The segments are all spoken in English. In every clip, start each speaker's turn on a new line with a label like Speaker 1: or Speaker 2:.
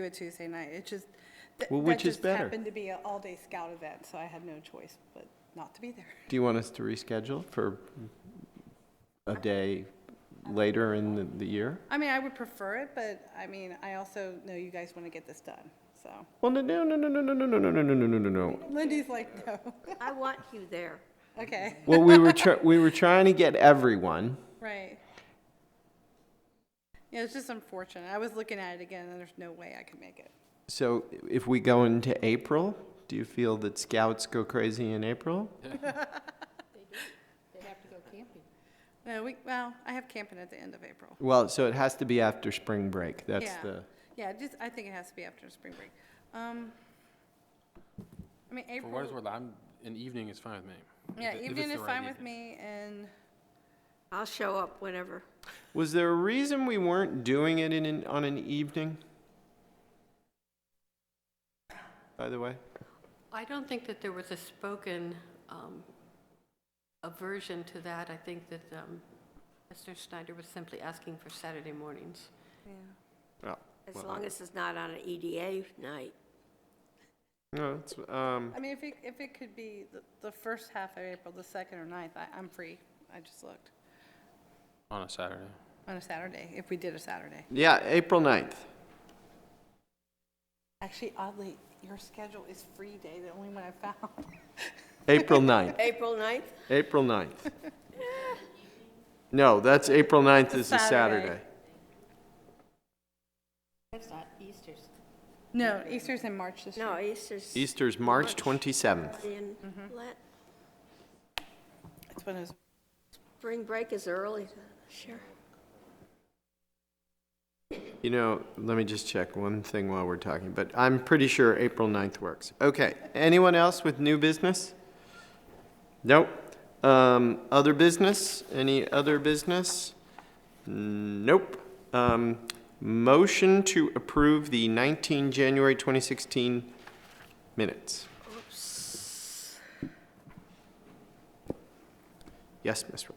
Speaker 1: do a Tuesday night. It just, that
Speaker 2: Well,
Speaker 1: that
Speaker 2: which is
Speaker 1: just
Speaker 2: better?
Speaker 1: happened to be an all-day scout event, so I had no choice but not to be there.
Speaker 2: Do you want us to reschedule for a day later in the, the year?
Speaker 1: I mean, I would prefer it, but I mean, I also know you guys want to get this done, so.
Speaker 2: Well, no, no, no, no, no, no, no, no, no, no, no, no, no, no.
Speaker 1: Lindy's like, no.
Speaker 3: I want you there.
Speaker 1: Okay,
Speaker 2: Well, we were try, we were trying to get everyone.
Speaker 1: right. Yeah, it's just unfortunate. I was looking at it again, and there's no way I could make it.
Speaker 2: So if we go into April, do you feel that scouts go crazy in April?
Speaker 1: No, we, well, I have camping at the end of April.
Speaker 2: Well, so it has to be after spring break. That's
Speaker 1: Yeah.
Speaker 2: the
Speaker 1: Yeah, just, I think it has to be after spring break. Um, I mean,
Speaker 4: For
Speaker 1: April.
Speaker 4: what it's worth, I'm, an evening is fine with me. If
Speaker 1: Yeah,
Speaker 4: it- if
Speaker 1: evening
Speaker 4: it's
Speaker 1: is
Speaker 4: the right
Speaker 1: fine with
Speaker 4: evening.
Speaker 1: me, and
Speaker 3: I'll show up whenever.
Speaker 2: Was there a reason we weren't doing it in an, on an evening? By the way,
Speaker 5: I don't think that there was a spoken um, aversion to that. I think that um, Mr. Schneider was simply asking for Saturday mornings.
Speaker 2: Oh, well,
Speaker 3: As long as it's not on an EDA night.
Speaker 2: no, it's, um,
Speaker 1: I mean, if it, if it could be the, the first half of April, the second or ninth, I, I'm free. I just looked
Speaker 4: On a Saturday.
Speaker 1: on a Saturday, if we did a Saturday.
Speaker 2: yeah, April 9th.
Speaker 1: Actually, oddly, your schedule is free day, the only one I found.
Speaker 2: April 9th.
Speaker 3: April 9th?
Speaker 2: April 9th. No, that's April 9th is a
Speaker 1: Saturday.
Speaker 2: Saturday.
Speaker 1: No, Easter's in March this year.
Speaker 3: No, Easter's.
Speaker 2: Easter's March 27th.
Speaker 3: In- let-
Speaker 1: It's when it was,
Speaker 3: Spring break is early, sure.
Speaker 2: You know, let me just check one thing while we're talking, but I'm pretty sure April 9th works. Okay, anyone else with new business? Nope. Um, other business? Any other business? Nope. Um, motion to approve the 19 January 2016 minutes. Yes, Ms. Rogers.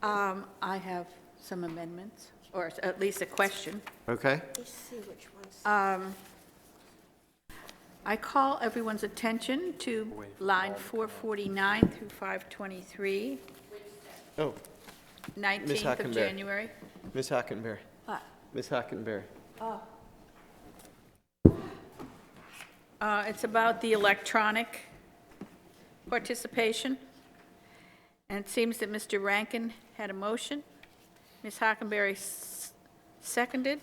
Speaker 6: Um, I have some amendments, or at least a question.
Speaker 2: Okay,
Speaker 3: Let's see which ones.
Speaker 6: Um, I call everyone's attention to line 449 through 523,
Speaker 2: oh,
Speaker 6: 19th
Speaker 2: Hockenberry.
Speaker 6: of January.
Speaker 2: Ms. Hockenberry.
Speaker 6: What?
Speaker 2: Ms. Hockenberry.
Speaker 6: Uh, It's about the electronic participation, and it seems that Mr. Rankin had a motion. Ms. Hockenberry s- seconded,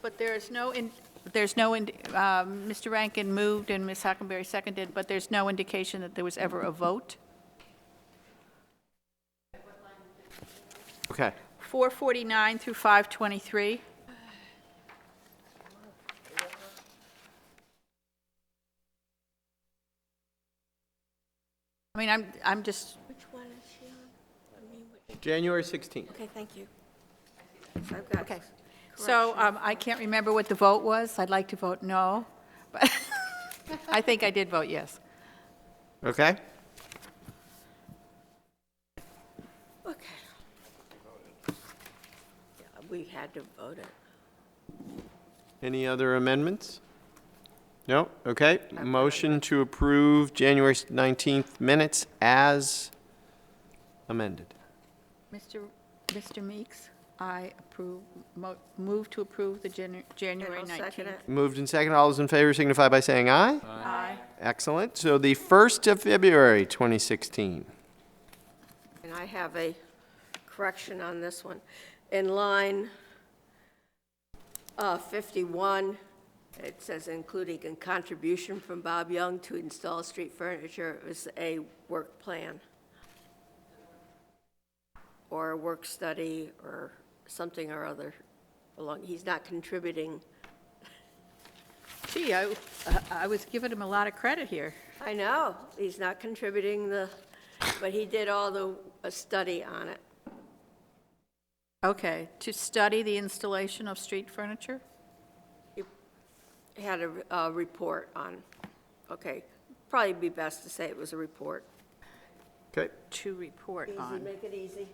Speaker 6: but there is no, in- there's no, ind- um, Mr. Rankin moved and Ms. Hockenberry seconded, but there's no indication that there was ever a vote.
Speaker 2: Okay.
Speaker 6: 449 through 523. I mean, I'm, I'm just,
Speaker 3: Which one is she on? I mean, which-
Speaker 2: January 16th.
Speaker 3: Okay, thank you. So I've got.
Speaker 6: okay. So um, I can't remember what the vote was. I'd like to vote no, but I think I did vote yes.
Speaker 2: Okay.
Speaker 3: Okay. Yeah, We had to vote it.
Speaker 2: Any other amendments? No? Okay. Motion to approve January 19th minutes as amended.
Speaker 6: Mr. Mr. Meeks, I approve, mo- move to approve the Janu- January
Speaker 3: And I'll second
Speaker 6: 19th.
Speaker 3: it.
Speaker 2: Moved and second. All those in favor signify by saying aye.
Speaker 6: Aye.
Speaker 2: Excellent. So the 1st of February, 2016.
Speaker 3: And I have a correction on this one. In line uh, 51, it says including a contribution from Bob Young to install street furniture, it was a work plan. Or a work study, or something or other along, he's not contributing.
Speaker 6: Gee, I, I was giving him a lot of credit here.
Speaker 3: I know, he's not contributing the, but he did all the, a study on it.
Speaker 6: Okay, to study the installation of street furniture?
Speaker 3: had a, a report on, okay, probably be best to say it was a report.
Speaker 2: Okay.
Speaker 6: To report on.
Speaker 3: make it easy.